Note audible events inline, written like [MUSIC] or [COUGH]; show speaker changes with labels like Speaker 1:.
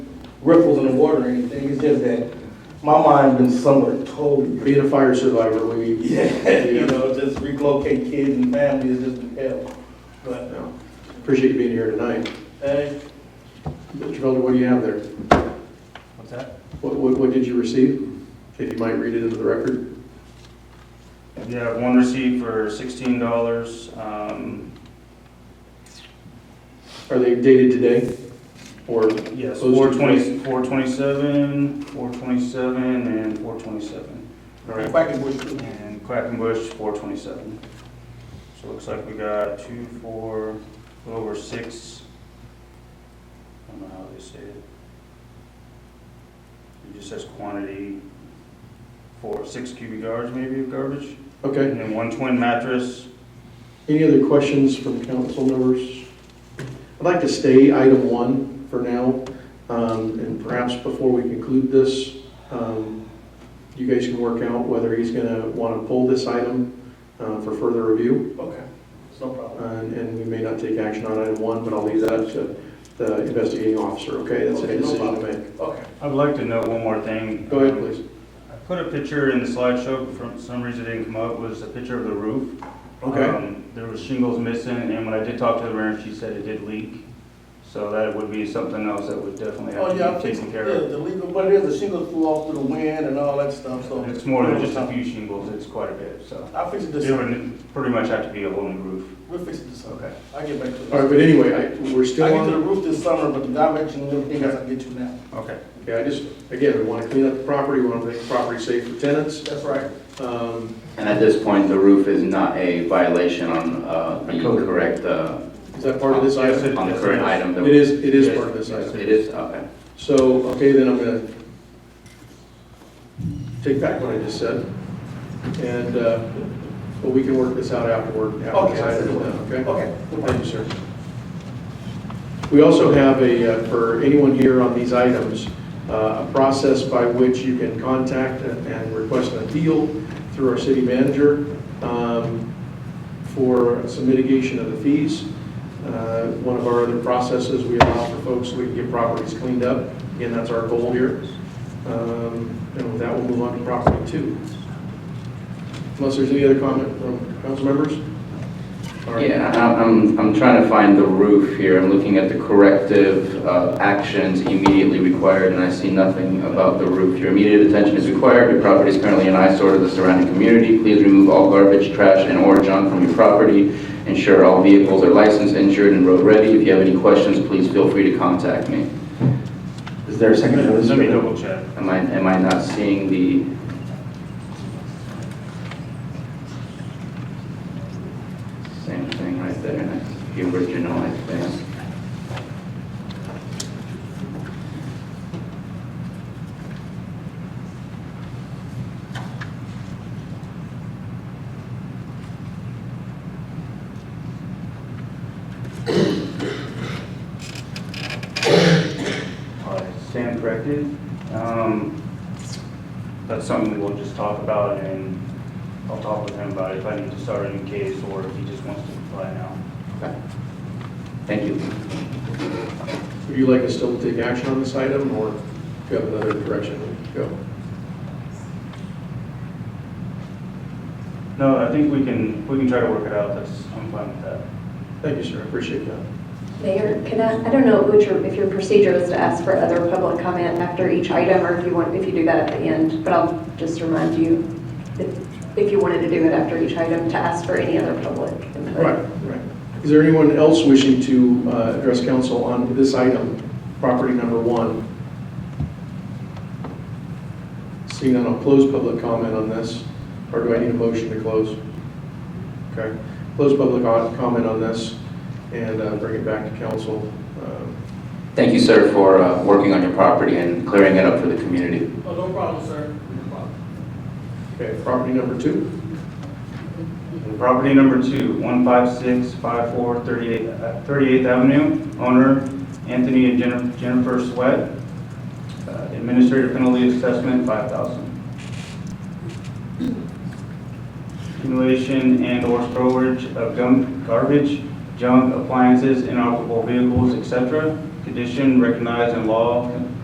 Speaker 1: ripples in the water or anything, it's just that my mind been somewhere totally. [LAUGHS]
Speaker 2: Being a fire survivor, we.
Speaker 1: Yeah, you know, just relocate kids and families is just hell. But,
Speaker 2: No. Appreciate you being here tonight.
Speaker 1: hey,
Speaker 2: Mr. Felder, what do you have there?
Speaker 3: What's that?
Speaker 2: What, what, what did you receive? If you might read it into the record.
Speaker 3: You have one receipt for sixteen dollars, um,
Speaker 2: Are they dated today? Or,
Speaker 3: yes,
Speaker 2: Those
Speaker 3: four
Speaker 2: two
Speaker 3: twenty, four twenty-seven, four twenty-seven, and four twenty-seven.
Speaker 2: all right,
Speaker 1: Quackenbush too.
Speaker 3: And Quackenbush, four twenty-seven. So it looks like we got two, four, a little over six. I don't know how they say it. It just says quantity, four, six cubic yards maybe of garbage,
Speaker 2: okay.
Speaker 3: and then one twin mattress,
Speaker 2: Any other questions from council members? I'd like to stay item one for now, um, and perhaps before we conclude this, um, you guys can work out whether he's going to want to pull this item uh, for further review,
Speaker 1: Okay, it's no
Speaker 2: Uh,
Speaker 1: problem.
Speaker 2: and and we may not take action on item one, but I'll leave that to the investigating officer, okay? That's a
Speaker 1: Okay, no
Speaker 2: decision to make.
Speaker 1: Okay.
Speaker 3: I'd like to note one more thing.
Speaker 2: Go ahead, please.
Speaker 3: I put a picture in the slideshow, but for some reason it didn't come up, was a picture of the roof.
Speaker 2: Okay.
Speaker 3: Um, There was shingles missing, and when I did talk to the mayor, she said it did leak. So that would be something else that would definitely
Speaker 1: Oh, yeah, I
Speaker 3: have to be
Speaker 1: think,
Speaker 3: taken
Speaker 1: yeah,
Speaker 3: care of.
Speaker 1: the legal, but it is, the shingles flew off through the wind and all that stuff, so.
Speaker 3: And It's more than just a few shingles, it's quite a bit, so.
Speaker 1: I'll fix it this
Speaker 3: It
Speaker 1: summer.
Speaker 3: would pretty much have to be a whole new roof.
Speaker 1: We'll fix it this summer.
Speaker 3: Okay.
Speaker 1: I'll get back to it.
Speaker 2: All right, but anyway, I- we're still
Speaker 1: I
Speaker 2: on.
Speaker 1: get to the roof this summer, but the direction and everything else I get to now.
Speaker 3: Okay.
Speaker 2: Okay, I just, again, we want to clean up the property, we want to make the property safe for tenants.
Speaker 1: That's right.
Speaker 2: Um,
Speaker 4: And at this point, the roof is not a violation on uh, the
Speaker 3: Code.
Speaker 4: correct, uh,
Speaker 2: Is that part of this
Speaker 3: Yes,
Speaker 2: item?
Speaker 3: it-
Speaker 4: on the
Speaker 3: yes,
Speaker 4: current
Speaker 3: it is.
Speaker 4: item. that
Speaker 2: It is, it is
Speaker 3: Yes.
Speaker 2: part of this item.
Speaker 4: It is, okay.
Speaker 2: So, okay, then I'm going to take back what I just said, and, uh, but we can work this out afterward, after this
Speaker 1: Okay, I see.
Speaker 2: item is done, okay?
Speaker 1: Okay.
Speaker 2: Thank you, sir. We also have a, uh, for anyone here on these items, uh, a process by which you can contact and and request an appeal through our city manager um, for some mitigation of the fees. Uh, One of our other processes, we allow for folks, so we can get properties cleaned up. Again, that's our goal here. Um, And with that, we'll move on to property two. Unless there's any other comment from council members? All right.
Speaker 4: Yeah, I- I'm, I'm trying to find the roof here. I'm looking at the corrective uh, actions immediately required, and I see nothing about the roof. Your immediate attention is required. Your property is currently an eyesore to the surrounding community. Please remove all garbage, trash, and or junk from your property. Ensure all vehicles are licensed, insured, and road-ready. If you have any questions, please feel free to contact me. Is there a second notice?
Speaker 3: Let
Speaker 4: for
Speaker 3: me
Speaker 4: that?
Speaker 3: double check.
Speaker 4: Am I, am I not seeing the? Same thing right there, that's the original, I think.
Speaker 3: All right, uh, stand corrected. Um, That's something we'll just talk about and I'll talk with him about if I need to start a new case or if he just wants to comply now.
Speaker 4: Okay. Thank you.
Speaker 2: Would you like us still to take action on this item, or do you have another direction? Go.
Speaker 3: No, I think we can, we can try to work it out. That's, I'm fine with that.
Speaker 2: Thank you, sir, I appreciate that.
Speaker 5: Mayor, can I, I don't know what your, if your procedure is to ask for other public comment after each item, or if you want, if you do that at the end, but I'll just remind you, if, if you wanted to do it after each item, to ask for any other public input.
Speaker 2: Right, right. Is there anyone else wishing to uh, address council on this item, property number one? Seeing none, I'll close public comment on this, or do I need a motion to close? Okay, close public o- comment on this, and uh, bring it back to council. Um,
Speaker 4: Thank you, sir, for uh, working on your property and clearing it up for the community.
Speaker 1: Oh, no problem, sir. No problem.
Speaker 2: Okay, property number two?
Speaker 3: And Property number two, 15654 38th uh, 38th Avenue, owner Anthony and Jennifer- Jennifer Sweat. Uh, Administrative penalty assessment, 5000 Accumulation and/or storage of gum- garbage, junk, appliances, inoperable vehicles, etc. Condition recognized in law,